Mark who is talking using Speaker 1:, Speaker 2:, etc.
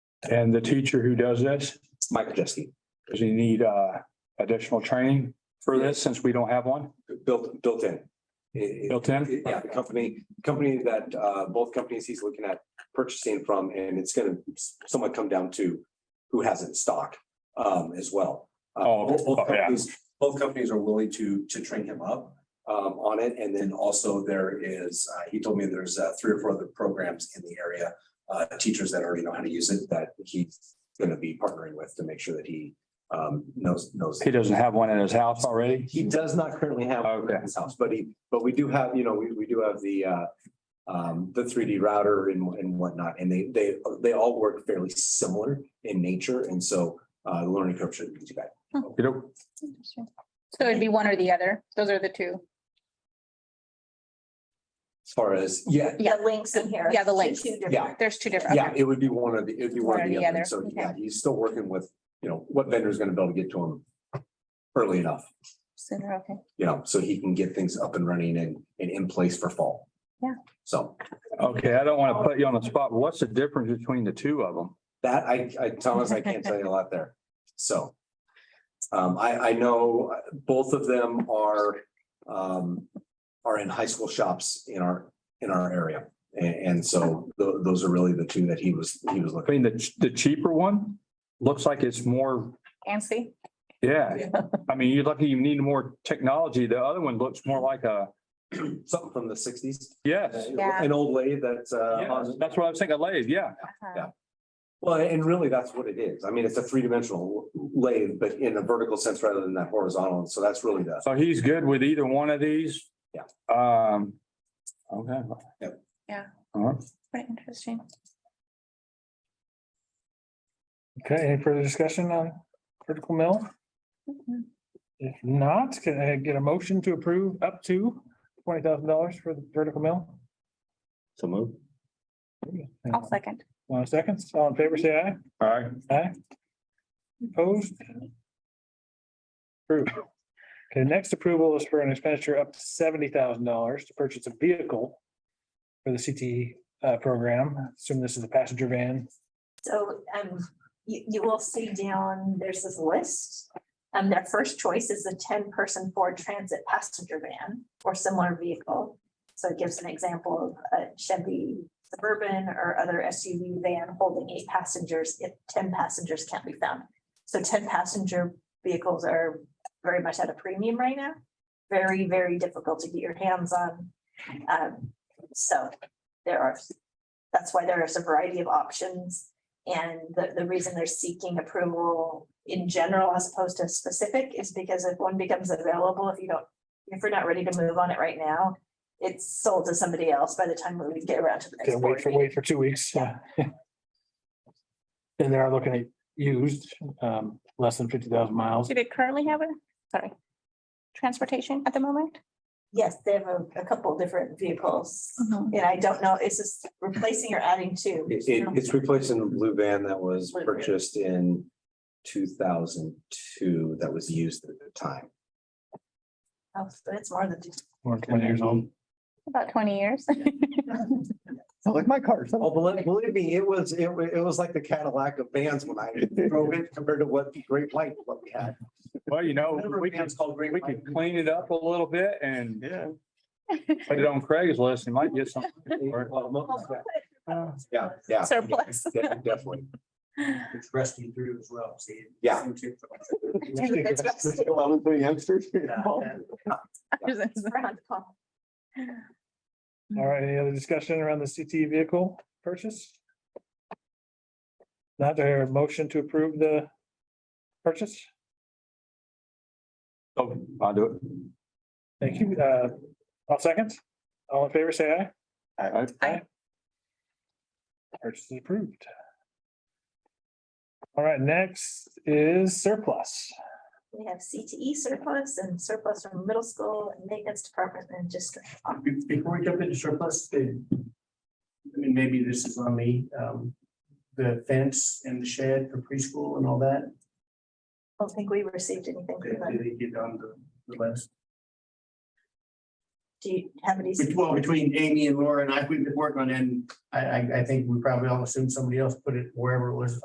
Speaker 1: And the teacher who does this,
Speaker 2: Michael Jeske,
Speaker 1: does he need uh additional training for this since we don't have one
Speaker 2: built, built in. It-
Speaker 1: built in?
Speaker 2: it- Yeah, the company, company that uh, both companies he's looking at purchasing from, and it's gonna somewhat come down to who has it in stock um, as well. Uh,
Speaker 1: Oh,
Speaker 2: both- both
Speaker 1: oh, yeah.
Speaker 2: companies- Both companies are willing to, to train him up um, on it, and then also there is, uh, he told me there's uh, three or four other programs in the area, uh, teachers that already know how to use it, that he's gonna be partnering with to make sure that he um, knows, knows.
Speaker 1: He doesn't have one in his house already?
Speaker 2: He does not currently have one
Speaker 1: Okay.
Speaker 2: in his house, but he, but we do have, you know, we, we do have the, uh, um, the three D router and, and whatnot, and they, they, they all work fairly similar in nature, and so, uh, the learning curve shouldn't be too bad.
Speaker 1: You know,
Speaker 3: Interesting. So it'd be one or the other. Those are the two.
Speaker 2: As far as, yeah,
Speaker 3: Yeah.
Speaker 4: The links in here.
Speaker 3: Yeah, the links.
Speaker 4: Two different-
Speaker 2: Yeah.
Speaker 3: There's two different.
Speaker 2: yeah,
Speaker 3: okay.
Speaker 2: it would be one of the, it'd be one of the other, so,
Speaker 3: okay.
Speaker 2: yeah, he's still working with, you know, what vendor is gonna be able to get to him early enough,
Speaker 3: So they're okay.
Speaker 2: you know, so he can get things up and running and, and in place for fall.
Speaker 3: Yeah.
Speaker 2: So.
Speaker 1: Okay, I don't want to put you on the spot. What's the difference between the two of them?
Speaker 2: That I, I, Thomas, I can't tell you a lot there, so. Um, I, I know uh, both of them are, um, are in high school shops in our, in our area. A- And, so tho- those are really the two that he was, he was
Speaker 1: I
Speaker 2: looking.
Speaker 1: mean, the the cheaper one looks like it's more,
Speaker 3: Ansi?
Speaker 1: yeah. I mean, you're lucky you need more technology. The other one looks more like a,
Speaker 2: Something from the sixties,
Speaker 1: yes.
Speaker 3: Yeah.
Speaker 2: an old lady that's, uh,
Speaker 1: Yes,
Speaker 2: on-
Speaker 1: That's what I was thinking, lathe, yeah.
Speaker 3: Uh,
Speaker 2: Yeah. well, and really that's what it is. I mean, it's a three dimensional lathe, but in a vertical sense rather than that horizontal. And So that's really the,
Speaker 1: So he's good with either one of these?
Speaker 2: Yeah.
Speaker 1: Um, okay. Uh-huh.
Speaker 2: Yep.
Speaker 3: Yeah.
Speaker 1: All right.
Speaker 3: Quite interesting.
Speaker 5: Okay, any further discussion on critical mill?
Speaker 2: Mm-hmm.
Speaker 3: Mhm.
Speaker 5: If not, can I get a motion to approve up to twenty thousand dollars for the vertical mill?
Speaker 2: so move.
Speaker 3: I'll second.
Speaker 5: One second, all in favor, say aye.
Speaker 1: All right.
Speaker 5: Aye. Opposed? Approved. Okay, next approval is for an expenditure up to seventy thousand dollars to purchase a vehicle for the CTE uh, program. Assume this is a passenger van.
Speaker 4: So, um, you, you will see down, there's this list. Um, their first choice is a ten-person Ford Transit passenger van or similar vehicle. So it gives an example of a Chevy Suburban or other SUV van holding eight passengers if ten passengers can't be found. So ten passenger vehicles are very much at a premium right now. Very, very difficult to get your hands on. Um, so there are, that's why there's a variety of options. And the, the reason they're seeking approval in general as opposed to specific is because if one becomes available, if you don't, if we're not ready to move on it right now, it's sold to somebody else by the time we get around to the next
Speaker 5: Gotta wait
Speaker 4: board
Speaker 5: for,
Speaker 4: meeting.
Speaker 5: wait for two weeks. yeah. And they are looking at used, um, less than fifty thousand miles.
Speaker 3: Do they currently have it? Sorry. Transportation at the moment?
Speaker 4: Yes, they have a, a couple different
Speaker 3: Mm-hmm.
Speaker 4: vehicles.
Speaker 2: Mm-hmm.
Speaker 4: And I don't know, is this replacing or adding to?
Speaker 2: It, it- it's replacing the blue van that was
Speaker 4: Blue van.
Speaker 2: purchased in two thousand two that was used at the time.
Speaker 4: Oh, but It's more than.
Speaker 5: More than twenty years old.
Speaker 3: About twenty years.
Speaker 6: Like my car.
Speaker 2: Oh, believe, believe me, it was, it was, it was like the Cadillac of vans when I drove it compared to what the Great White, what we had.
Speaker 1: Well, you know,
Speaker 2: Remember
Speaker 1: Oh, we can,
Speaker 2: vans called Great
Speaker 1: we
Speaker 2: White?
Speaker 1: can clean it up a little bit and
Speaker 6: Yeah.
Speaker 1: put it on Craigslist. You might get some.
Speaker 2: Well, most-
Speaker 1: Uh,
Speaker 2: Yeah, yeah.
Speaker 3: Surplus.
Speaker 2: Yeah, Definitely.
Speaker 7: It's rusty through as well, see?
Speaker 2: Yeah.
Speaker 4: It's rusty.
Speaker 6: youngsters.
Speaker 4: Round call.
Speaker 5: All right, any other discussion around the CTE vehicle purchase? Not a motion to approve the purchase?
Speaker 1: So Oh, I'll do it.
Speaker 5: Thank you. Uh, all seconds. All in favor, say aye.
Speaker 1: All right.
Speaker 5: Purchase is approved. All right, next is surplus.
Speaker 4: We have CTE surplus and surplus from middle school and maintenance department and just.
Speaker 7: Be- Before we jump into surplus, the, I mean, maybe this is on me, um, the fence and the shed for preschool and all that,
Speaker 4: I don't think we received anything.
Speaker 7: they,
Speaker 4: from them.
Speaker 7: they get on the, the list.
Speaker 4: Do you have any?
Speaker 7: Bet- Well, between Amy and Laura and I, we've been working on it, and I, I, I think we probably all assumed somebody else put it wherever it was